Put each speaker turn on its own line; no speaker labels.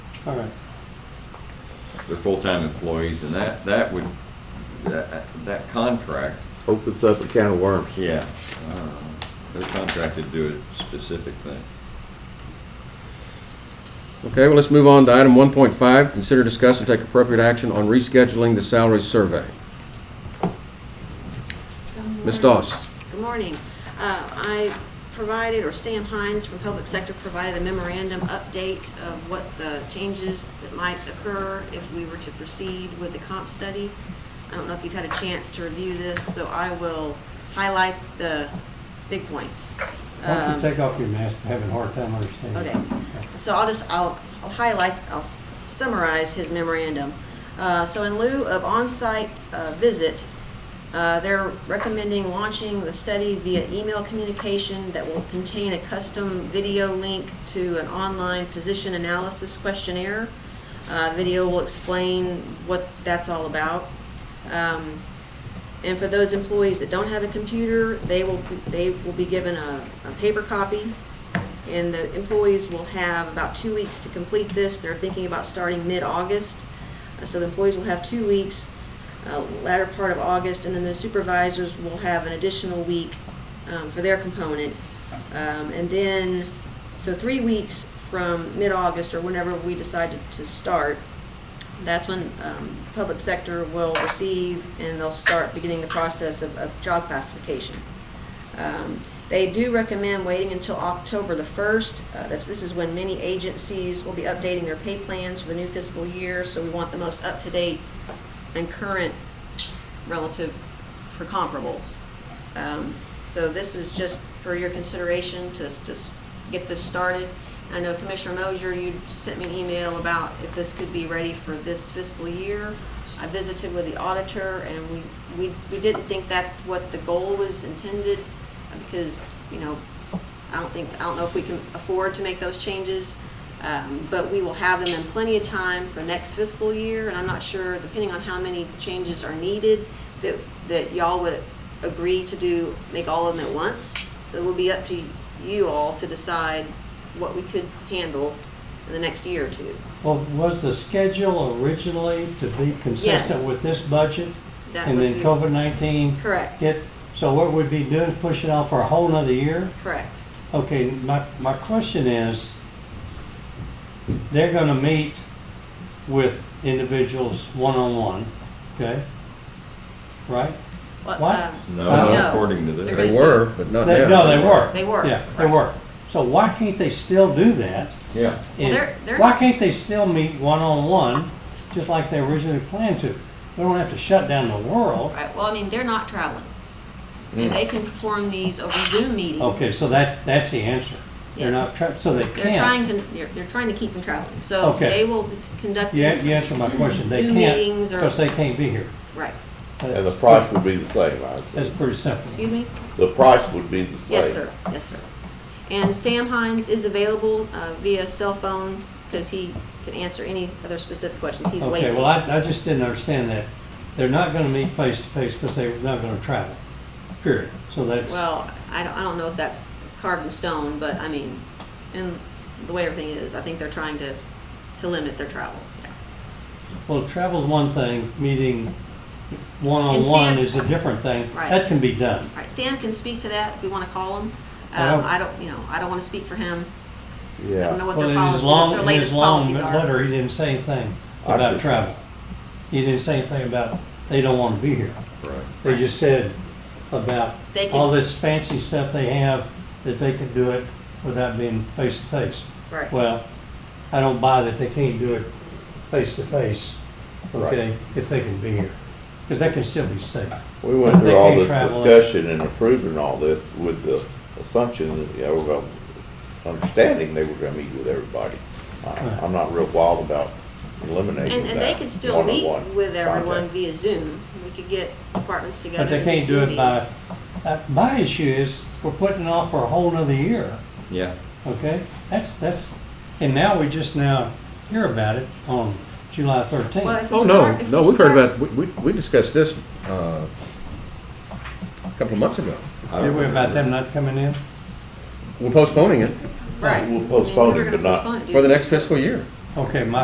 All right,
They're full-time employees, and that, that would, that, that contract,
Opens up a can of worms.
yeah, um, they're contracted to do a specific thing.
Okay, well, let's move on to item 1.5, consider, discuss, and take appropriate action on rescheduling the salary survey. Ms. Doss?
Good morning. Uh, I provided, or Sam Hines from Public Sector provided a memorandum update of what the changes that might occur if we were to proceed with the comp study. I don't know if you've had a chance to review this, so I will highlight the big points.
why don't
Um,
you take off your mask, I'm having a hard time understanding.
Okay, so I'll just, I'll, I'll highlight, I'll s- summarize his memorandum. Uh, so in lieu of on-site, uh, visit, uh, they're recommending launching the study via email communication that will contain a custom video link to an online position analysis questionnaire. Uh, the video will explain what that's all about. Um, and for those employees that don't have a computer, they will, they will be given a, a paper copy. And the employees will have about two weeks to complete this. They're thinking about starting mid-August. Uh, So the employees will have two weeks, uh, latter part of August, and then the supervisors will have an additional week um, for their component. Um, And then, so three weeks from mid-August or whenever we decide to- to start, that's when um, public sector will receive and they'll start beginning the process of, of job classification. Um, They do recommend waiting until October the 1st. Uh, That's, this is when many agencies will be updating their pay plans for the new fiscal year, so we want the most up-to-date and current relative for comparables. Um, So this is just for your consideration to, to s- get this started. I know Commissioner Mosier, you sent me an email about if this could be ready for this fiscal year. I visited with the auditor and we, we, we didn't think that's what the goal was intended because, you know, I don't think, I don't know if we can afford to make those changes. Um, but we will have them in plenty of time for next fiscal year, and I'm not sure, depending on how many changes are needed, that, that y'all would agree to do, make all of them at once. So it will be up to you all to decide what we could handle in the next year or two.
Well, was the schedule originally to be consistent
Yes.
with this budget?
That
And
was
then
the-
COVID-19
Correct,
hit, so what we'd be doing is pushing off for a whole nother year?
correct.
Okay, my, my question is, they're gonna meet with individuals one-on-one, okay? Right?
What,
What?
um,
No,
Uh,
not
No.
according to
They're
this.
gonna-
Uh, They were, but not
They-
now.
No, they were.
They were,
Yeah, they
right.
were. So why can't they still do that?
Yeah,
Well,
And
they're- they're
Why
not-
can't they still meet one-on-one, just like they originally planned to? We don't have to shut down the world.
Right, well, I mean, they're not traveling. And they can perform these over Zoom meetings.
Okay, so that, that's the answer. They're not,
Yes.
try- so they
They're trying
can't.
to, they're, they're trying to keep them traveling, so
Okay.
they will conduct
You,
these.
you answered my question. They
Zoom
can't,
meetings or-
because they can't be here.
Right,
And the
That's-
price would be the same, I
That's
assume.
pretty simple.
excuse me?
The price would be the same.
Yes, sir, yes, sir. And Sam Hines is available uh, via cell phone, because he can answer any other specific questions, he's
Okay,
waiting.
well, I, I just didn't understand that. They're not gonna meet face-to-face because they're not gonna travel, period. So that's,
Well, I don't, I don't know if that's carved in stone, but I mean, and the way everything is, I think they're trying to, to limit their travel.
well, travel's one thing, meeting
And Sam-
one-on-one is a different thing.
Right.
That can be done.
All right, Sam can speak to that if we want to call him.
I don't-
Um, I don't, you know, I don't want to speak for him, I don't know
Yeah.
what
Well,
their
in his
policies,
long,
their
in his
latest
long
policies are.
letter, he didn't say anything
I
about
just-
travel. He didn't say anything about, they don't want to be here.
right.
They just said about
They
all
can-
this fancy stuff they have, that they can do it without being face to face.
Right.
Well, I don't buy that they can't do it face to face,
Right.
okay, if they can be here. Because that can still be safe.
We went
They
through all
can't
this
travel.
discussion and approving all this with the assumption that, you know, we're going, understanding they were gonna meet with everybody. I- I'm not real wild about eliminating
And,
that.
and they could still meet
one-on-one
with everyone
contact.
via Zoom. We could get departments together.
But they
and do
can't do
Zoom
it by,
meetings.
uh, my issue is, we're putting it off for a whole nother year.
Yeah,
Okay, that's, that's, and now we just now hear about it on July
Well,
thirteenth.
if we
Oh, no,
start- if
no,
we
we've heard
start-
about, we- we we discussed this uh, a couple of months ago.
I
Did
don't
we about
remember.
them not coming in?
We're postponing it
Right.
We'll
I mean, we
postpone
were
it,
gonna
but not-
postpone it,
for the
dude.
next fiscal year.
Okay, my